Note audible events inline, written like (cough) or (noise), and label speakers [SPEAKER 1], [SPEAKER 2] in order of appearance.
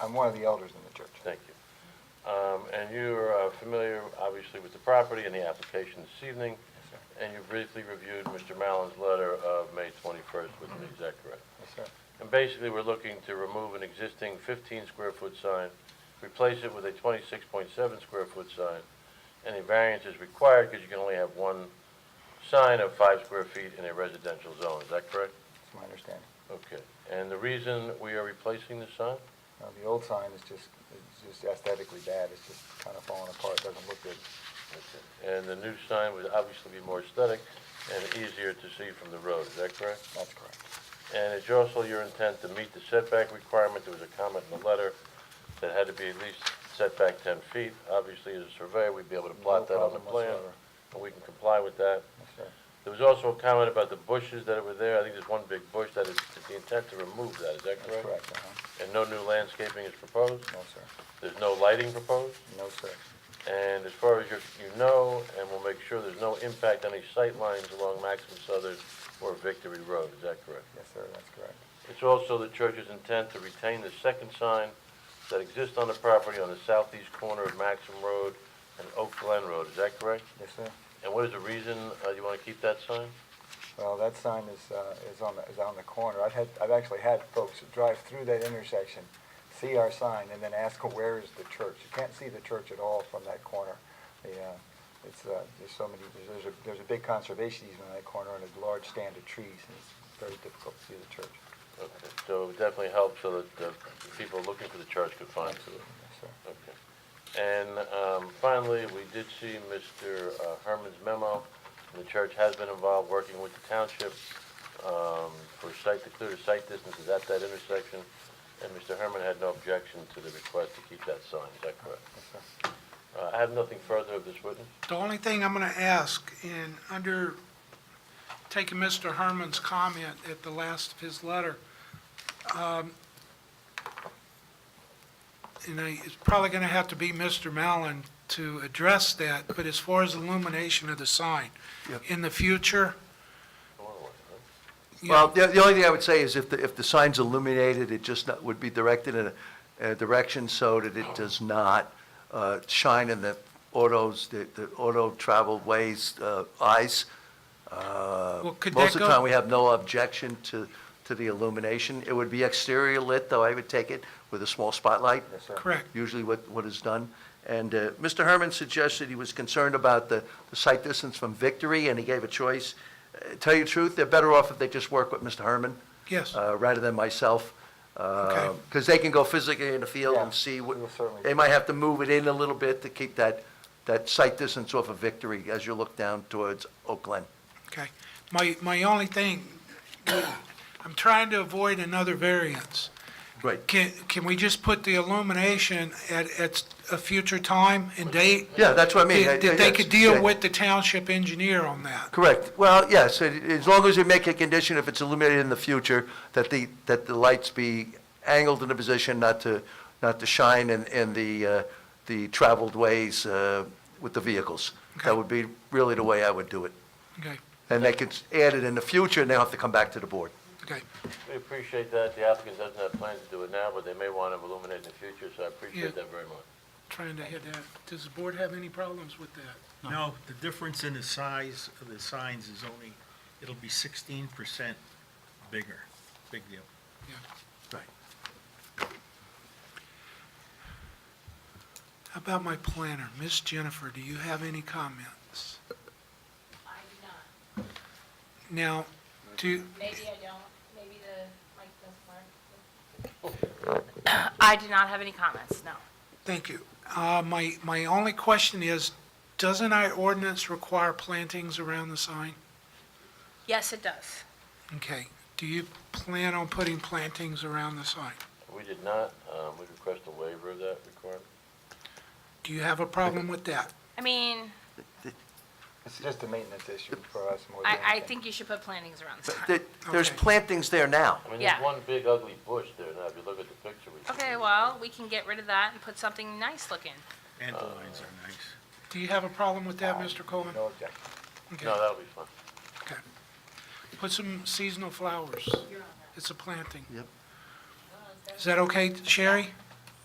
[SPEAKER 1] I'm one of the elders in the church.
[SPEAKER 2] Thank you. Um, And you're uh, familiar, obviously, with the property and the application this evening, and you briefly reviewed Mr. Mallon's letter of May 21st with me, is that correct?
[SPEAKER 1] Yes, sir.
[SPEAKER 2] And basically, we're looking to remove an existing 15-square-foot sign, replace it with a 26.7-square-foot sign, and a variance is required because you can only have one sign of five square feet in a residential zone, is that correct?
[SPEAKER 1] That's my understanding.
[SPEAKER 2] Okay. And the reason we are replacing the sign?
[SPEAKER 1] Now, the old sign is just, it's just aesthetically bad. It's just kind of falling apart. It doesn't look good.
[SPEAKER 2] And the new sign would obviously be more aesthetic and easier to see from the road, is that correct?
[SPEAKER 1] That's correct.
[SPEAKER 2] And it's also your intent to meet the setback requirement, there was a comment in the letter that had to be at least setback 10 feet. Obviously, as a surveyor, we'd be able to plot that on the
[SPEAKER 1] problem
[SPEAKER 2] plan,
[SPEAKER 1] whatsoever.
[SPEAKER 2] and we can comply with that.
[SPEAKER 1] Yes, sir.
[SPEAKER 2] There was also a comment about the bushes that were there, I think there's one big bush that is, is the intent to remove that, is that
[SPEAKER 1] That's
[SPEAKER 2] correct?
[SPEAKER 1] correct, uh-huh.
[SPEAKER 2] And no new landscaping is proposed,
[SPEAKER 1] No, sir.
[SPEAKER 2] there's no lighting proposed?
[SPEAKER 1] No, sir.
[SPEAKER 2] And as far as you, you know, and we'll make sure there's no impact on any sight lines along Maxim Southern or Victory Road, is that correct?
[SPEAKER 1] Yes, sir, that's correct.
[SPEAKER 2] It's also the church's intent to retain the second sign that exists on the property on the southeast corner of Maxim Road and Oak Glen Road, is that correct?
[SPEAKER 1] Yes, sir.
[SPEAKER 2] And what is the reason, uh, you wanna keep that sign?
[SPEAKER 1] Well, that sign is, uh, is on the, is on the corner. I've had, I've actually had folks drive through that intersection, see our sign, and then ask, where is the church? You can't see the church at all from that corner. The, uh, it's, uh, there's so many, there's- there's a, there's a big conservation easement on that corner and a large stand of trees, and it's very difficult to see the church.
[SPEAKER 2] Okay, so it would definitely help so that the people looking for the church could find it.
[SPEAKER 1] Absolutely, yes, sir.
[SPEAKER 2] Okay. And um, finally, we did see Mr. uh, Herman's memo. The church has been involved working with the township um, for site, to clear the site distances at that intersection. And Mr. Herman had no objection to the request to keep that sign, is that correct?
[SPEAKER 1] Yes, sir.
[SPEAKER 2] Uh, I have nothing further of this witness.
[SPEAKER 3] The only thing I'm going to ask, and under, taking Mr. Herman's comment at the last of his letter, um, and I, it's probably going to have to be Mr. Mallon to address that, but as far as illumination of the sign, in the future, you
[SPEAKER 4] Well,
[SPEAKER 3] know,
[SPEAKER 4] the, the only thing I would say is if the, if the sign's illuminated, it just not- would be directed in a, a direction so that it does not, uh, shine in the autos, the, the auto travel ways, uh, eyes. Uh,
[SPEAKER 3] Well, could that
[SPEAKER 4] Most of the
[SPEAKER 3] go-
[SPEAKER 4] time, we have no objection to, to the illumination. It would be exterior lit, though I would take it with a small spotlight
[SPEAKER 1] Yes, sir.
[SPEAKER 3] correct.
[SPEAKER 4] usually what, what is done. And uh, Mr. Herman suggested he was concerned about the the site distance from Victory, and he gave a choice. Uh, Tell you the truth, they're better off if they just work with Mr. Herman.
[SPEAKER 3] Yes.
[SPEAKER 4] uh, Rather than myself.
[SPEAKER 3] Okay.
[SPEAKER 4] Because they can go physically in the field and
[SPEAKER 1] Yeah,
[SPEAKER 4] see
[SPEAKER 1] we will certainly-
[SPEAKER 4] what, they might have to move it in a little bit to keep that, that site distance off of Victory as you look down towards Oak Glen.
[SPEAKER 3] Okay. My, my only thing, I'm trying to avoid another variance.
[SPEAKER 4] Great.
[SPEAKER 3] Can, can we just put the illumination at, at a future time and date?
[SPEAKER 4] Yeah, that's what I mean.
[SPEAKER 3] That
[SPEAKER 4] Yeah,
[SPEAKER 3] that they
[SPEAKER 4] yeah,
[SPEAKER 3] could
[SPEAKER 4] yeah.
[SPEAKER 3] deal with the township engineer on that.
[SPEAKER 4] Correct. Well, yes, it- as long as you make a condition, if it's illuminated in the future, that the, that the lights be angled in a position not to, not to shine in, in the, uh, the traveled ways uh, with the vehicles.
[SPEAKER 3] Okay.
[SPEAKER 4] That would be really the way I would do it.
[SPEAKER 3] Okay,
[SPEAKER 4] And they could add it in the future, and they'll have to come back to the board.
[SPEAKER 3] okay.
[SPEAKER 2] We appreciate that. The applicant doesn't have plans to do it now, but they may want to illuminate in the future, so I
[SPEAKER 3] Yeah.
[SPEAKER 2] appreciate that very much.
[SPEAKER 3] Trying to hit that. Does the board have any problems with that?
[SPEAKER 5] No, the difference in the size of the signs is only, it'll be sixteen percent bigger. Big deal.
[SPEAKER 3] How about my planner? Miss Jennifer, do you have any comments?
[SPEAKER 6] I do not.
[SPEAKER 3] Now, do,
[SPEAKER 6] Maybe I don't, maybe the mic doesn't work. (coughs) I do not have any comments, no.
[SPEAKER 3] thank you. Uh, my, my only question is, doesn't our ordinance require plantings around the sign?
[SPEAKER 6] Yes, it does.
[SPEAKER 3] Okay. Do you plan on putting plantings around the sign?
[SPEAKER 2] We did not, um, we request a waiver of that requirement.
[SPEAKER 3] Do you have a problem with that?
[SPEAKER 6] I mean,
[SPEAKER 1] It's just a maintenance issue for us more than
[SPEAKER 6] I, I
[SPEAKER 1] anything.
[SPEAKER 6] think you should put plantings around the
[SPEAKER 4] But
[SPEAKER 6] sign.
[SPEAKER 4] there- There's
[SPEAKER 3] Okay.
[SPEAKER 4] plantings there now.
[SPEAKER 2] I mean,
[SPEAKER 6] Yeah.
[SPEAKER 2] there's one big ugly bush there now, if you look at the picture. we took.
[SPEAKER 6] Okay, well, we can get rid of that and put something nice looking.
[SPEAKER 5] And the lines are nice.
[SPEAKER 3] Do you have a problem with that, Mr. Coleman?
[SPEAKER 1] No objection.
[SPEAKER 3] Okay.
[SPEAKER 2] No, that'll be fine.
[SPEAKER 3] Okay. Put some seasonal flowers. It's a planting.
[SPEAKER 4] Yep.
[SPEAKER 3] Is that okay, Sherry?